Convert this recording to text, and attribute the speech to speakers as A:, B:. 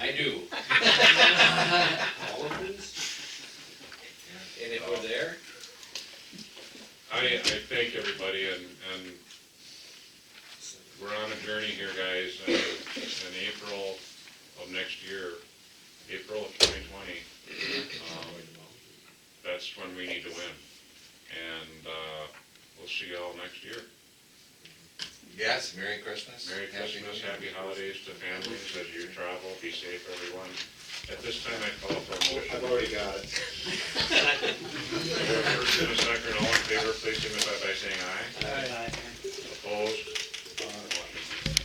A: do.
B: All of these? And if we're there,
A: I, I thank everybody and, and we're on a journey here, guys. And In April of next year, April of twenty twenty, um, that's when we need to win. And, uh, we'll see y'all next year.
C: Yes, Merry Christmas.
A: Merry
C: Happy New
A: Christmas,
C: Year.
A: happy holidays to families as you travel, be safe, everyone. At this time, I call for a motion.
D: I've already got it.
A: In a second, all in favor, please signify by saying aye. Opposed?